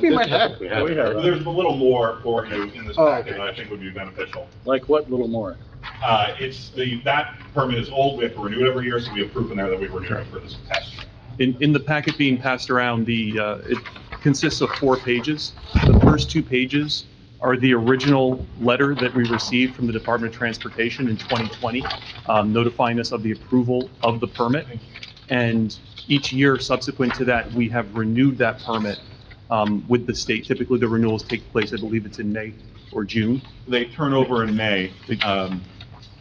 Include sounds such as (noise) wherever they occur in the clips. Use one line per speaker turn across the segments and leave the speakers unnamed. We might have-
have, we have.
We have.
There's a little more for you in this
Oh,
packet
okay.
that I think would be beneficial.
Like what little more?
Uh, it's the, that permit is old, we have to renew it every year, so we have proof in there that we renewed it for this test.
In, in the packet being passed around, the, uh, it consists of four pages. The first two pages are the original letter that we received from the Department of Transportation in 2020, um, notifying us of the approval of the permit. And each year subsequent to that, we have renewed that permit um, with the state. Typically, the renewals take place, I believe it's in May or June.
They turn over in May, um,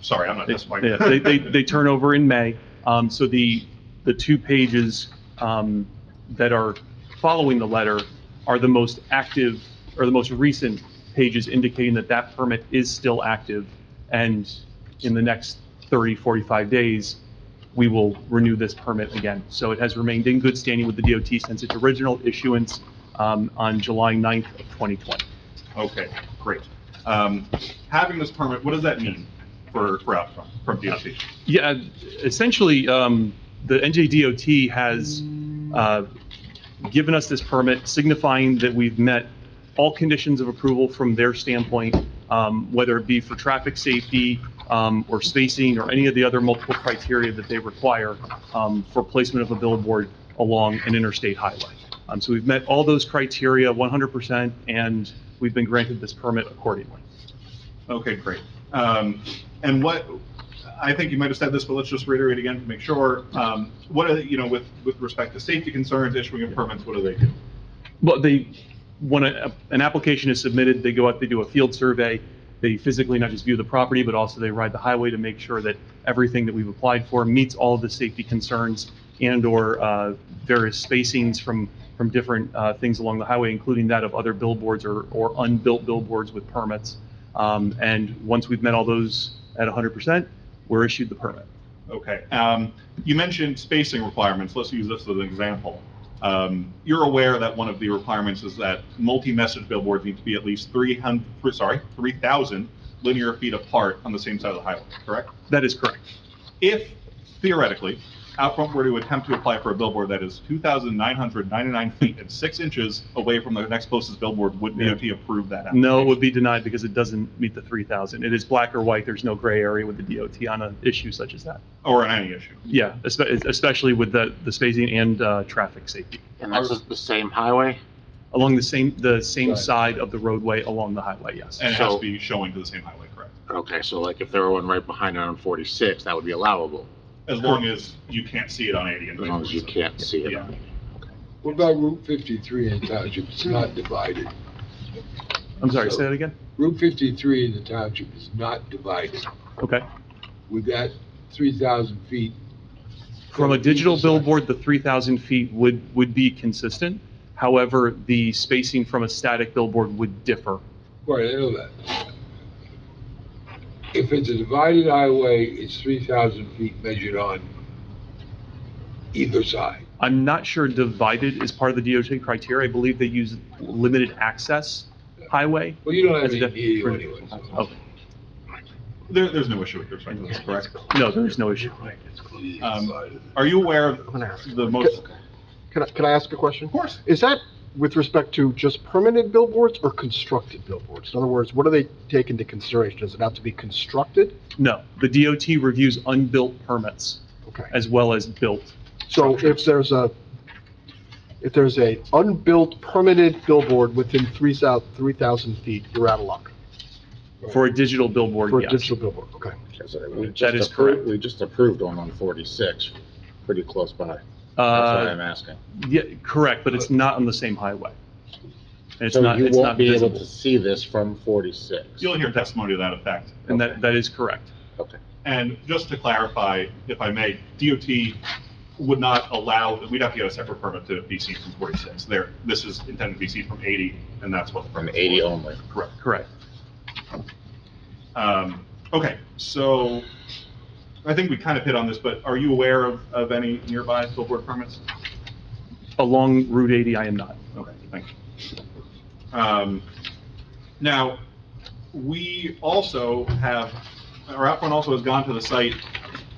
sorry, I'm not testifying.
Yeah, They,
(laughs)
they, they turn over in May. Um, so the, the two pages, um, that are following the letter are the most active, or the most recent pages indicating that that permit is still active. And in the next 30, 45 days, we will renew this permit again. So it has remained in good standing with the DOT since its original issuance, um, on July 9th of 2020.
Okay, great. Um, having this permit, what does that mean for, for out from, from DOT?
Yeah, essentially, um, the NJDOT has, uh, given us this permit signifying that we've met all conditions of approval from their standpoint, um, whether it be for traffic safety, um, or spacing, or any of the other multiple criteria that they require, um, for placement of a billboard along an interstate highway. Um, so we've met all those criteria 100%, and we've been granted this permit accordingly.
Okay, great. Um, and what, I think you might have said this, but let's just reiterate again to make sure. Um, what are, the- you know, with, with respect to safety concerns, issuing of permits, what do they do?
Well, they, when a- an application is submitted, they go out, they do a field survey. They physically not just view the property, but also they ride the highway to make sure that everything that we've applied for meets all of the safety concerns and/or uh, various spacings from, from different uh, things along the highway, including that of other billboards or, or unbuilt billboards with permits. Um, And once we've met all those at 100%, we're issued the permit.
Okay. Um, you mentioned spacing requirements. Let's use this as an example. Um, you're aware that one of the requirements is that multi-message billboards need to be at least 300, sorry, 3,000 linear feet apart on the same side of the highway, correct?
That is correct.
If theoretically, Outfront were to attempt to apply for a billboard that is 2,999 feet and 6 inches away from the next closest billboard, would
Yeah.
DOT approve that?
No, it
application?
would be denied because it doesn't meet the 3,000. It is black or white, there's no gray area with the DOT on an issue such as that.
Or on any issue?
Yeah, espe- especially with the, the spacing and uh, traffic safety,
And that's just the same highway?
along the same, the same
Right.
side of the roadway along the highway, yes.
And it has
So-
to be showing to the same highway, correct?
Okay, so like if there were one right behind it on 46, that would be allowable,
As long as you can't see it on 80 and
as long as you
20.
can't see it.
Yeah.
What about Route 53 in the township? It's not divided.
I'm sorry, say that again?
Route 53 in the township is not divided.
Okay.
Would that 3,000 feet?
From a digital
Either side.
billboard, the 3,000 feet would, would be consistent. However, the spacing from a static billboard would differ.
Right, I know that. If it's a divided highway, it's 3,000 feet measured on either side.
I'm not sure divided is part of the DOT criteria. I believe they use limited access highway.
Well, you don't have
That's
any
def-
EU anyway. so-
Okay.
There, there's no issue with respect to this, correct?
No, there is no issue.
Um, Are you aware of the most,
Can I, can I ask a question?
of course,
Is that with respect to just permanent billboards or constructed billboards? In other words, what do they take into consideration? Does it have to be constructed?
No, the DOT reviews unbuilt permits
Okay.
as well as built.
So if there's a, if there's a unbuilt permanent billboard within three thou, three thousand feet, you're out of luck
For a digital
for
billboard,
a
yes.
digital billboard, okay?
That is correct.
We just approved one on 46, pretty close by. That's why
Uh,
I'm asking.
yeah, correct, but it's not on the same highway. And it's
So
not,
you
it's
won't
not
be able to
visible.
see this from 46?
you'll hear testimony to that effect.
And that, that is correct.
Okay.
And just to clarify, if I may, DOT would not allow, we'd have to get a separate permit to be seen from 46. There, this is intended to be seen from 80, and that's what the
From
permit
80 only?
Correct.
Correct.
Um, Okay, so I think we kind of hit on this, but are you aware of, of any nearby billboard permits?
Along Route 80, I am not.
Okay, thank you. Um, Now, we also have, our outfront also has gone to the site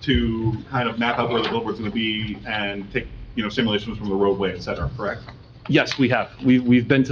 to kind of map out where the billboard's going to be and take, you know, simulations from the roadway, et cetera, correct?
Yes, we have. We, we've been to